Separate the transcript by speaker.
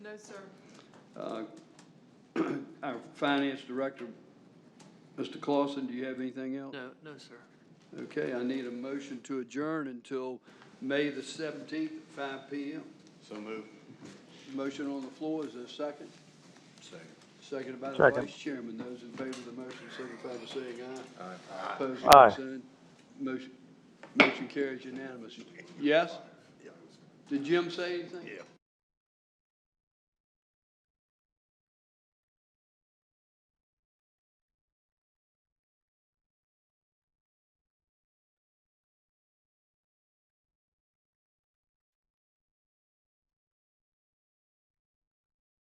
Speaker 1: No, sir.
Speaker 2: Uh, Our finance director, Mr. Clausen, do you have anything else?
Speaker 3: No, no, sir.
Speaker 2: Okay, I need a motion to adjourn until May the 17th at five PM.
Speaker 4: So move.
Speaker 2: Motion on the floor, is there a second?
Speaker 4: Second.
Speaker 2: Seconded by the
Speaker 5: Second.
Speaker 2: vice chairman. Those in favor of the motion signify by saying aye.
Speaker 4: Aye.
Speaker 2: Opposed,
Speaker 5: Aye.
Speaker 2: like sign. Motion, motion carries unanimously. Yes? Did Jim say anything?
Speaker 4: Yeah.